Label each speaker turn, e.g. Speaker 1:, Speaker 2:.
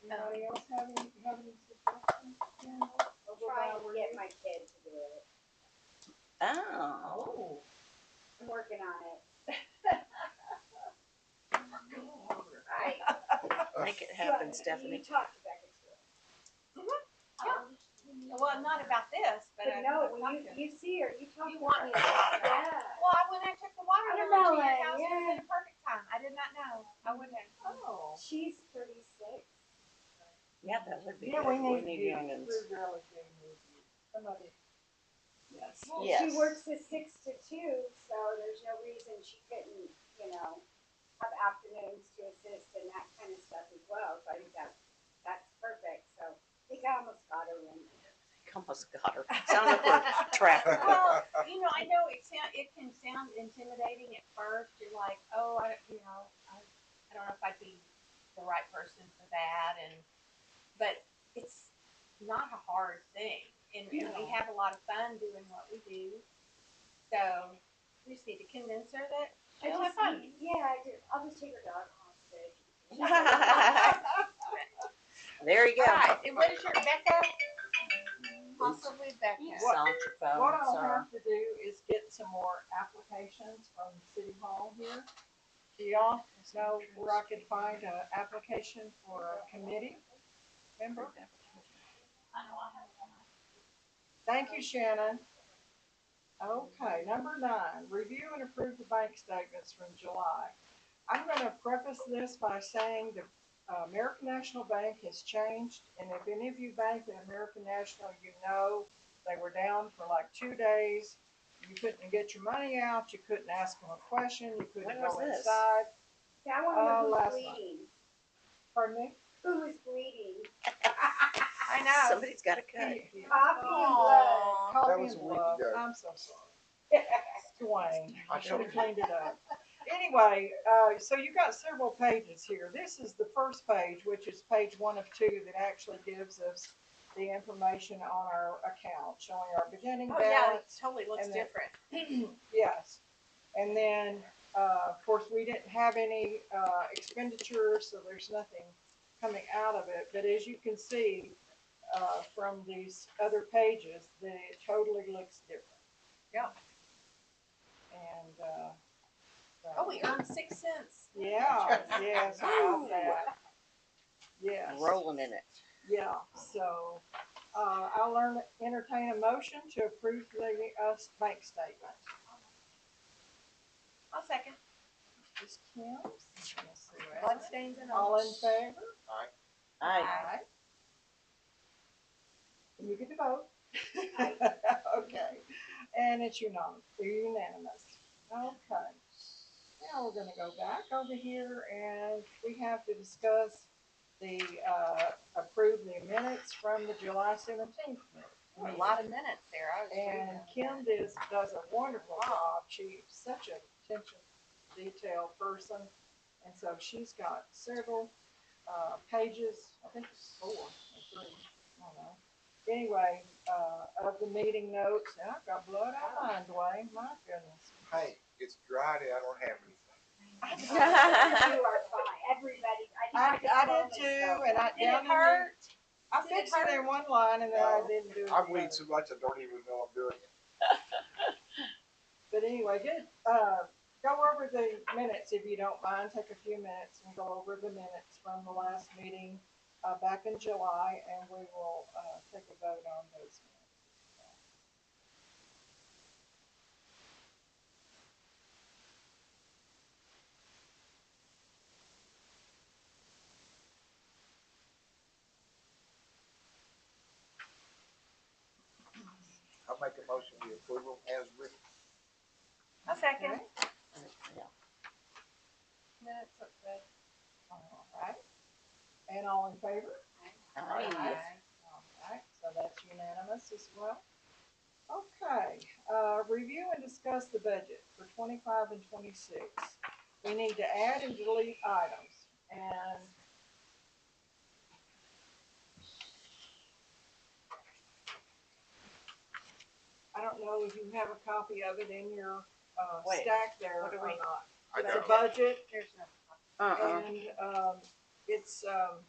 Speaker 1: Anybody else have any, have any suggestions? Jen?
Speaker 2: Trying to get my kid to do it.
Speaker 3: Oh.
Speaker 4: Oh.
Speaker 2: I'm working on it.
Speaker 4: I,
Speaker 3: Make it happen, Stephanie.
Speaker 2: You talked back and forth.
Speaker 4: well, not about this, but I.
Speaker 2: But no, when you, you see her, you talk to her.
Speaker 4: You want me to-
Speaker 2: Yeah.
Speaker 4: Well, I- when I took the watermelon to
Speaker 2: Watermelon,
Speaker 4: your house, it was
Speaker 2: yeah.
Speaker 4: in the perfect time. I did not know. I wouldn't have. Oh.
Speaker 2: She's thirty-six.
Speaker 3: Yeah, that would be
Speaker 1: Yeah,
Speaker 3: good.
Speaker 1: we need, to get
Speaker 3: youngins.
Speaker 1: We're really getting moving. Somebody. Yes.
Speaker 2: Well,
Speaker 3: Yes.
Speaker 2: She works a six to two, so there's no reason she couldn't, you know, have afternoons to assist and that kind of stuff as well. So I think that's, that's perfect. So I think I almost got her in.
Speaker 3: Almost got her. Sounded like we're trapping
Speaker 4: Well,
Speaker 3: her.
Speaker 4: you know, I know it sound, it can sound intimidating at first. You're like, oh, I, you know, I, I don't know if I'd be the right person for that, and but it's not a hard thing, and, and we
Speaker 1: No.
Speaker 4: have a lot of fun doing what we do. So we just need to convince her that
Speaker 2: I
Speaker 4: she'll have
Speaker 2: just,
Speaker 4: fun.
Speaker 2: yeah, I do. I'll just take her dog hostage.
Speaker 3: There you go.
Speaker 4: All right, and what is your Becca? Possibly Becca.
Speaker 3: You
Speaker 1: What-
Speaker 3: sound your
Speaker 1: What
Speaker 3: phone,
Speaker 1: I'll
Speaker 3: sir.
Speaker 1: have to do is get some more applications from City Hall here. Do y'all know where I could find an application for a committee member? Thank you, Shannon. Okay, number nine, review and approve the bank statements from July. I'm gonna preface this by saying the uh, American National Bank has changed, and if any of you bank at American National, you know they were down for like two days. You couldn't get your money out, you couldn't ask them a question, you couldn't
Speaker 3: When
Speaker 1: go
Speaker 3: was this?
Speaker 1: inside.
Speaker 2: Yeah, I want to know
Speaker 1: Oh,
Speaker 2: who's
Speaker 1: last month.
Speaker 2: bleeding.
Speaker 1: Pardon me?
Speaker 2: Who was bleeding?
Speaker 4: I know. Oh,
Speaker 3: Somebody's got a cut.
Speaker 2: Coffee and blood.
Speaker 4: Aw.
Speaker 1: Coffee
Speaker 5: That was
Speaker 1: and
Speaker 5: a week
Speaker 1: love.
Speaker 5: ago.
Speaker 1: I'm so sorry. Dwayne.
Speaker 5: I
Speaker 1: Should
Speaker 5: told
Speaker 1: have
Speaker 5: you.
Speaker 1: cleaned it up. Anyway, uh, so you got several pages here. This is the first page, which is page one of two that actually gives us the information on our account, showing our beginning
Speaker 4: Oh, yeah,
Speaker 1: balance,
Speaker 4: it totally looks
Speaker 1: And then-
Speaker 4: different.
Speaker 1: Yes. And then, uh, of course, we didn't have any, uh, expenditures, so there's nothing coming out of it. But as you can see, uh, from these other pages, that it totally looks different.
Speaker 4: Yep.
Speaker 1: And, uh. so-
Speaker 4: Oh, we earned six cents.
Speaker 1: Yeah, yes, about that. Yes.
Speaker 3: Rolling in it.
Speaker 1: Yeah, so, uh, I'll learn, entertain a motion to approve the, uh, bank statement.
Speaker 4: I'll second.
Speaker 1: Ms. Kim? Let's see what
Speaker 4: Blood
Speaker 1: else.
Speaker 4: stains and all.
Speaker 1: All in favor?
Speaker 3: I,
Speaker 4: Aye.
Speaker 1: You get to vote. Okay, and it's unan- unanimous. Okay. Now we're gonna go back over here and we have to discuss the, uh, approve the minutes from the July seventeenth.
Speaker 4: Ooh, A lot of minutes there. I was
Speaker 1: And
Speaker 4: reading.
Speaker 1: Kim does, does a wonderful job. She's such a attention detail person. And so she's got several, uh, pages, I think it's four or three, I don't know. Anyway, uh, of the meeting notes, and I've got blood on mine, Dwayne, my goodness.
Speaker 5: Hey, it's Friday, I don't have anything.
Speaker 2: You are fine. Everybody.
Speaker 1: I,
Speaker 2: just
Speaker 1: I
Speaker 2: wanted to
Speaker 1: did too,
Speaker 2: know.
Speaker 1: and I.
Speaker 4: Did
Speaker 1: down
Speaker 4: it
Speaker 1: in the-
Speaker 4: hurt?
Speaker 1: I
Speaker 4: Did it
Speaker 1: fixed it in one line and then I
Speaker 5: No.
Speaker 1: didn't do it.
Speaker 5: I
Speaker 1: the
Speaker 5: read
Speaker 1: other.
Speaker 5: so much, I don't even know I'm doing it.
Speaker 1: But anyway, good, uh, go over the minutes if you don't mind, take a few minutes and go over the minutes from the last meeting, uh, back in July, and we will, uh, take a vote on those.
Speaker 5: I make a motion to approval as written.
Speaker 4: A second.
Speaker 1: Okay.
Speaker 4: Minutes look good.
Speaker 1: All right, and all in favor?
Speaker 3: I,
Speaker 1: All right, so that's unanimous as well. Okay, uh, review and discuss the budget for twenty-five and twenty-six. We need to add and delete items, and I don't know if you have a copy of it in your, uh,
Speaker 3: Wait,
Speaker 1: stack there
Speaker 3: what do
Speaker 1: or
Speaker 3: we-
Speaker 1: not.
Speaker 5: I
Speaker 1: The
Speaker 5: don't.
Speaker 1: budget
Speaker 4: There's no.
Speaker 3: uh-uh.
Speaker 1: and, um, it's, um,